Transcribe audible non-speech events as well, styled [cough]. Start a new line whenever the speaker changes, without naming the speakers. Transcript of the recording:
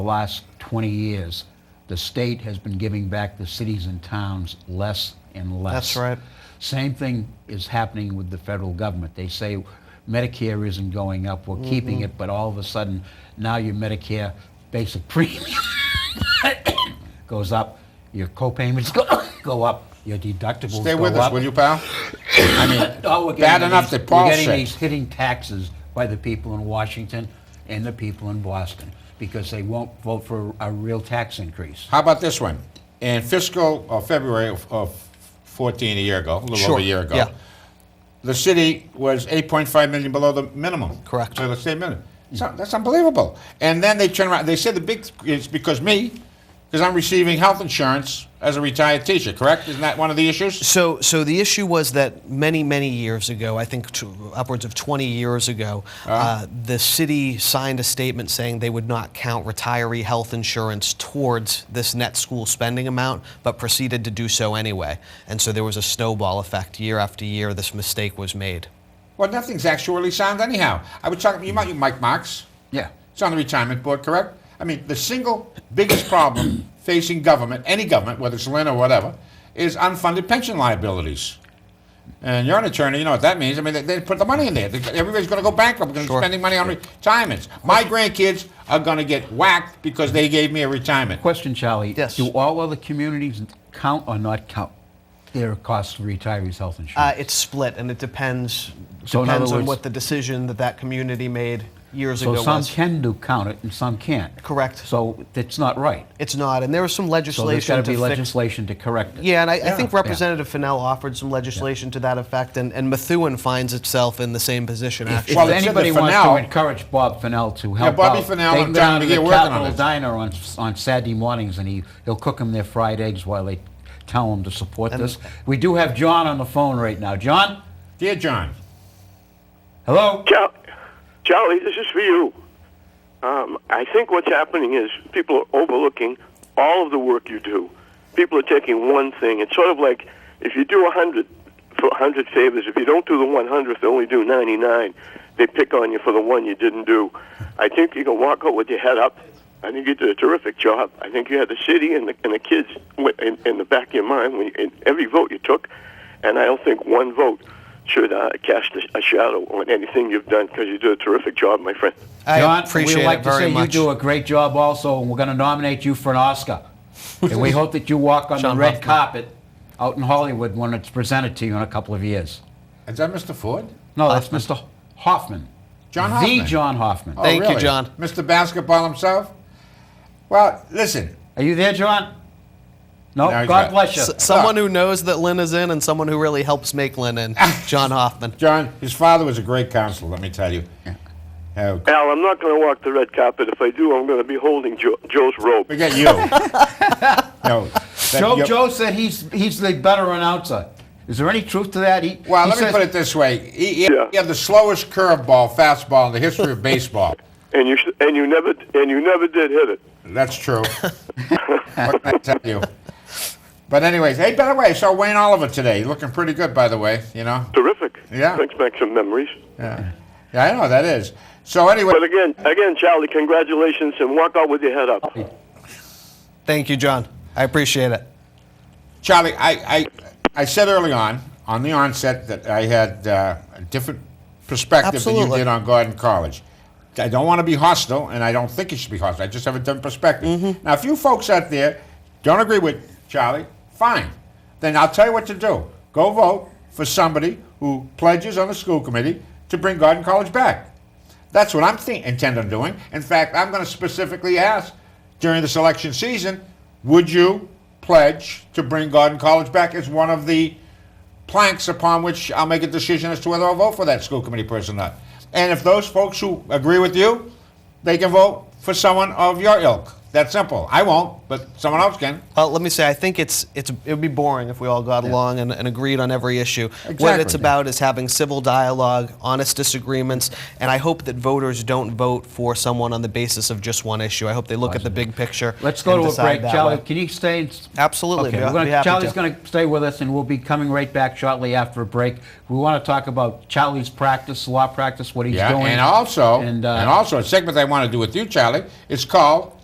the last 20 years, the state has been giving back the cities and towns less and less.
That's right.
Same thing is happening with the federal government. They say Medicare isn't going up, we're
Mm-hmm.
keeping it, but all of a sudden, now your Medicare basic premium [coughs] goes up, your co-payments [coughs] go, go up, your deductibles
Stay
go
with us,
up.
will you, pal?
I [laughs] mean, all Oh, we're getting
Bad
are
enough
these,
that Paul
we're getting
said.
these hitting taxes by the people in Washington and the people in Boston because they won't vote for a real tax increase.
How about this one? In fiscal uh, February of, of 14, a year ago, a little
Sure,
over a year ago,
yeah.
the city was 8.5 million below the minimum.
Correct.
So the state minimum. So that's unbelievable. And then they turn around. They said the big it's because me, because I'm receiving health insurance as a retired teacher. Correct? Isn't that one of the issues?
So, so the issue was that many, many years ago, I think t upwards of 20 years ago, uh the city signed a statement saying they would not count retiree health insurance towards this net school spending amount, but proceeded to do so anyway. And so there was a snowball effect year after year. This mistake was made.
Well, nothing's actually sound anyhow. I was talking. You might you Mike Marks.
Yeah.
It's on the retirement board, correct? I mean, the single biggest problem facing government, any government, whether it's Lynn or whatever, is unfunded pension liabilities. And you're an attorney, you know what that means. I mean, they, they put the money in there. They- Everybody's going to go bankrupt because they're spending money on retirements. My grandkids are going to get whacked because they gave me a retirement.
Question, Charlie.
Yes.
Do all other communities count or not count their cost of retirees' health insurance?
Uh, it's split, and it depends
So in other
depends on
words-
what the decision that that community made years
so
ago
some
was.
can do count it and some can't.
Correct.
So it's not right.
it's not, and there was some
So there's got
legislation
to be
to fix
legislation to correct it.
Yeah, and I, I
Yeah.
think Representative Fennell offered some legislation to that effect, and, and Methuen finds itself in the same position, actually.
If
Well, it's in
anybody
the
wants
Fennell-
to encourage Bob Fennell to help
Bobby
out,
Fennell,
they
I'm
can go
trying
down
to
to
get
the
working on
Capitol
this.
Diner on, on Saturday mornings, and he, he'll cook them their fried eggs while they tell them to support this. We do have John on the phone right now. John,
Dear John,
hello.
Char- Charlie, this is for you. Um, I think what's happening is people are overlooking all of the work you do. People are taking one thing. It's sort of like if you do a hundred for a hundred favors, if you don't do the one hundredth, they only do ninety nine. They pick on you for the one you didn't do. I think you can walk out with your head up. I think you did a terrific job. I think you had the city and the, and the kids wi- in, in the back of your mind when you, in every vote you took, and I don't think one vote should uh, cast a, a shadow on anything you've done because you did a terrific job, my friend.
I
John,
appreciate
we'd like
it very
to say
much.
you do a great job also, and we're going to nominate you for an Oscar. and we hope that you walk on
Sean
the red
Huffman.
carpet out in Hollywood when it's presented to you in a couple of years.
is that Mr. Ford?
No, that's Mr. Hoffman.
John
The
Hoffman.
John Hoffman.
Oh,
Thank you,
really?
John.
Mr. Basketball himself? Well, listen,
Are you there, John? No,
No, he's
God
not.
bless you.
S- someone who knows that Lynn is in, and someone who really helps make
[laughs]
Lynn in, John Hoffman.
John, his father was a great counselor, let me tell you. Uh,
Al, I'm not going to walk the red carpet. If I do, I'm going to be holding jo- Joe's rope.
forget you. no. that-
Joe,
you're-
Joe said he's he's the better announcer. Is there any truth to that? He,
Well,
he
let me
says-
put it this way: he, he,
Yeah.
he had the slowest curveball, fastball in the history of baseball.
And you sh- and you never and you never did hit it.
That's true. what can I tell you? But anyways, hey, by the way, I saw Wayne Oliver today. Looking pretty good, by the way. You know.
Terrific.
Yeah.
Brings back some memories.
Yeah, yeah I know that is. So anyway,
But again, again, Charlie, congratulations and walk out with your head up.
Thank you, John. I appreciate it.
Charlie, I, I, I said early on, on the onset, that I had uh, a different perspective than you
Absolutely.
did on Gordon College. I don't want to be hostile, and I don't think it should be hostile. I just have a different perspective. Now, if you folks out there don't agree with Charlie, fine. Then I'll tell you what to do. Go vote for somebody who pledges on the school committee to bring Gordon College back. That's what I'm th- intend on doing. In fact, I'm going to specifically ask during this election season, would you pledge to bring Garden College back as one of the planks upon which I'll make a decision as to whether I'll vote for that school committee person or not. And if those folks who agree with you, they can vote for someone of your ilk. That's simple. I won't, but someone else can.
Uh, let me say, I think it's it's it would be boring if we all got along and, and agreed on every issue. What
Exactly.
it's about is having civil dialogue, honest disagreements, and I hope that voters don't vote for someone on the basis of just one issue. I hope they look at the big picture.
Let's go
and
to a
decide
break.
that
Charlie,
way.
can you stay? And, s-
Absolutely,
Okay,
be-
we're gonna-
be happy
Charlie's
to.
going to stay with us, and we'll be coming right back shortly after a break. We want to talk about Charlie's practice, law practice, what he's
Yeah.
doing.
And also,
And, uh,
and also, a segment I want to do with you, Charlie, is called